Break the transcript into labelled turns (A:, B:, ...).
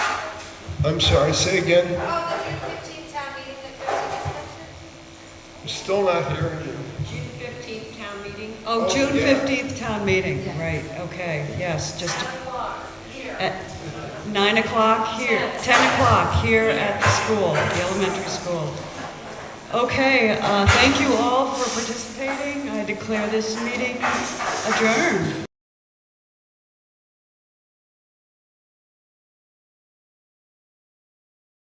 A: I'm sorry, say again,
B: Oh, the June fifteenth town meeting that Christie just mentioned?
A: I'm still not hearing you.
B: June fifteenth town meeting,
A: Oh,
C: Oh, June
A: yeah.
C: 15th town meeting, right, okay, yes, just
B: o'clock here.
C: at 9 o'clock here, 10 o'clock here at the school, the elementary school. Okay, uh, thank you all for participating. I declare this meeting adjourned.